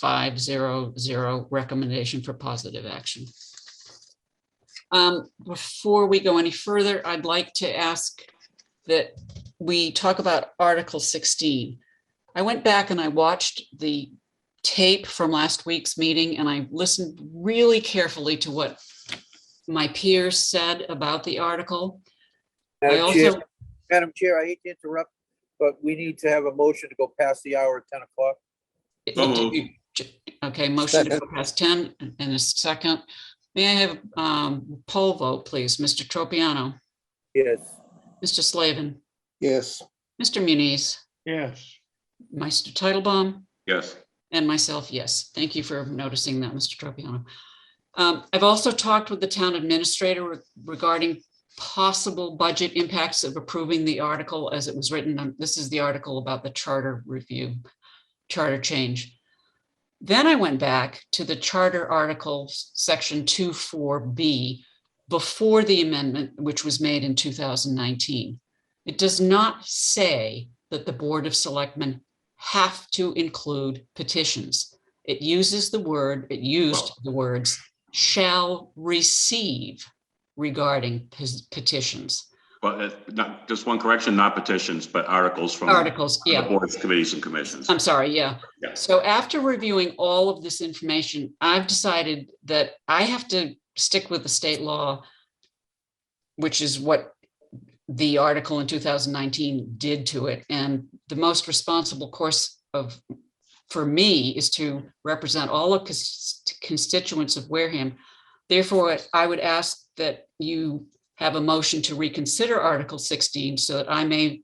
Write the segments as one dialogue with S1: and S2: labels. S1: five zero zero recommendation for positive action. Um, before we go any further, I'd like to ask that we talk about Article sixteen. I went back and I watched the tape from last week's meeting and I listened really carefully to what my peers said about the article. I
S2: Madam Chair,
S1: also,
S2: Madam Chair, I hate to interrupt, but we need to have a motion to go past the hour at ten o'clock.
S1: okay, motion to go past ten and a second. May I have um poll vote, please? Mr. Tropiano,
S2: Yes,
S1: Mr. Slavin,
S3: Yes.
S1: Mr. Muniz,
S3: Yes.
S1: Mr. Titlebaum,
S4: Yes,
S1: and myself, yes. Thank you for noticing that, Mr. Tropiano. Um, I've also talked with the town administrator re- regarding possible budget impacts of approving the article as it was written. Um, This is the article about the charter review, charter change. Then I went back to the charter article, section 24B, before the amendment, which was made in 2019. It does not say that the Board of Selectmen have to include petitions. It uses the word, it used the words shall receive regarding pes- petitions,
S4: well, uh, not, just one correction, not petitions, but articles from the
S1: articles, yeah.
S4: boards, committees and commissions.
S1: I'm sorry, yeah.
S4: Yeah.
S1: So after reviewing all of this information, I've decided that I have to stick with the state law, which is what the article in 2019 did to it. And the most responsible course of, for me, is to represent all of cons- constituents of Wareham. Therefore, I would ask that you have a motion to reconsider Article 16 so that I may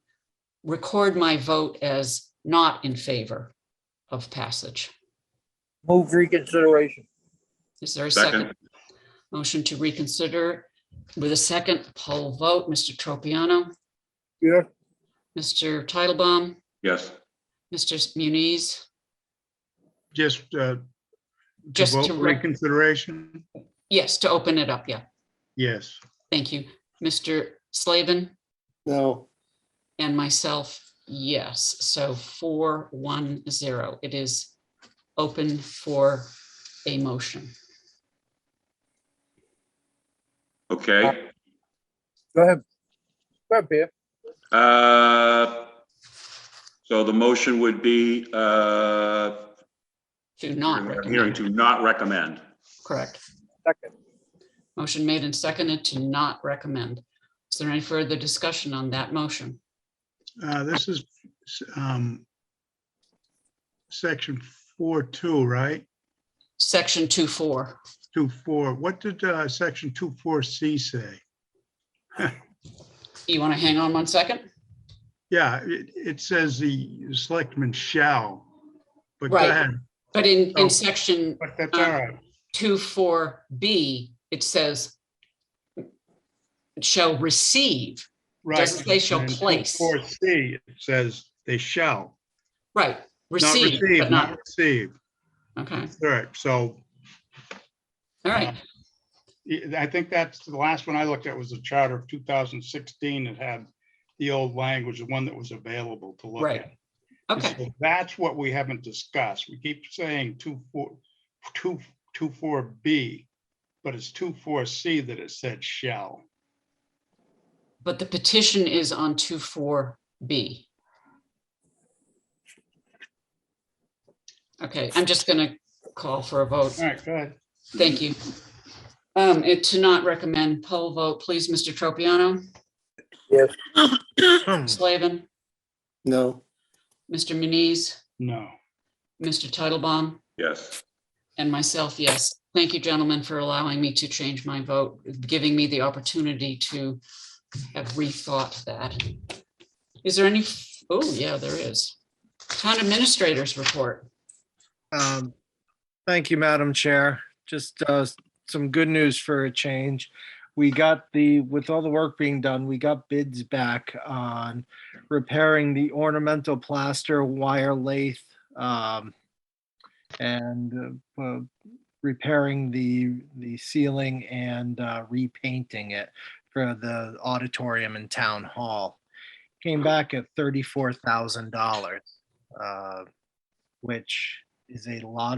S1: record my vote as not in favor of passage.
S2: move reconsideration.
S1: Is there a
S4: Second,
S1: second? Motion to reconsider with a second poll vote, Mr. Tropiano,
S2: Yes.
S1: Mr. Titlebaum,
S4: yes,
S1: Mr. Muniz,
S3: Just, uh, to
S1: Just to
S3: vote
S1: re-
S3: reconsideration?
S1: yes, to open it up, yeah,
S3: Yes.
S1: thank you. Mr. Slavin
S3: No.
S1: and myself, yes, so four, one, zero. It is open for a motion.
S4: okay.
S2: Go ahead. Go ahead, Pam.
S4: Uh, So the motion would be uh,
S1: Do not
S4: hearing
S1: recommend,
S4: to not recommend.
S1: correct.
S2: Second.
S1: Motion made and seconded to not recommend. Is there any further discussion on that motion?
S3: Uh, this is, um, section four, two, right?
S1: Section two, four.
S3: Two, four. What did, uh, section two, four, C say?
S1: You want to hang on one second?
S3: Yeah, it, it says the selectmen shall. But go
S1: Right.
S3: ahead.
S1: But in,
S3: Oh.
S1: in section
S3: But that's all right.
S1: two, four, B, it says shall receive,
S3: Right.
S1: doesn't say shall
S3: And
S1: place.
S3: Four, C, it says they shall.
S1: right,
S3: Not
S1: receive, but
S3: Not
S1: not,
S3: receive.
S1: okay,
S3: All right, so
S1: all right.
S3: Yeah, I think that's the last one I looked at was the charter of two thousand sixteen that had the old language, the one that was available to look
S1: Right,
S3: at. And
S1: Okay,
S3: so That's what we haven't discussed. We keep saying two, four, two, two, four B, but it's two, four C that it said shall.
S1: but the petition is on two, four, B. Okay, I'm just going to call for a vote.
S3: All right, go ahead.
S1: Thank you. Um, and to not recommend poll vote, please, Mr. Tropiano.
S2: Yes.
S5: Hmm.
S1: Slavin,
S6: No,
S1: Mr. Muniz,
S3: No.
S1: Mr. Titlebaum,
S4: Yes,
S1: and myself, yes. Thank you, gentlemen, for allowing me to change my vote, giving me the opportunity to have rethought that. Is there any, oh, yeah, there is. Town administrators report.
S5: Um, Thank you, Madam Chair. Just uh, s- some good news for a change. We got the, with all the work being done, we got bids back on repairing the ornamental plaster wire lathe um, and uh, uh, repairing the, the ceiling and uh, repainting it for the auditorium and town hall. Came back at $34,000, uh, which is a lot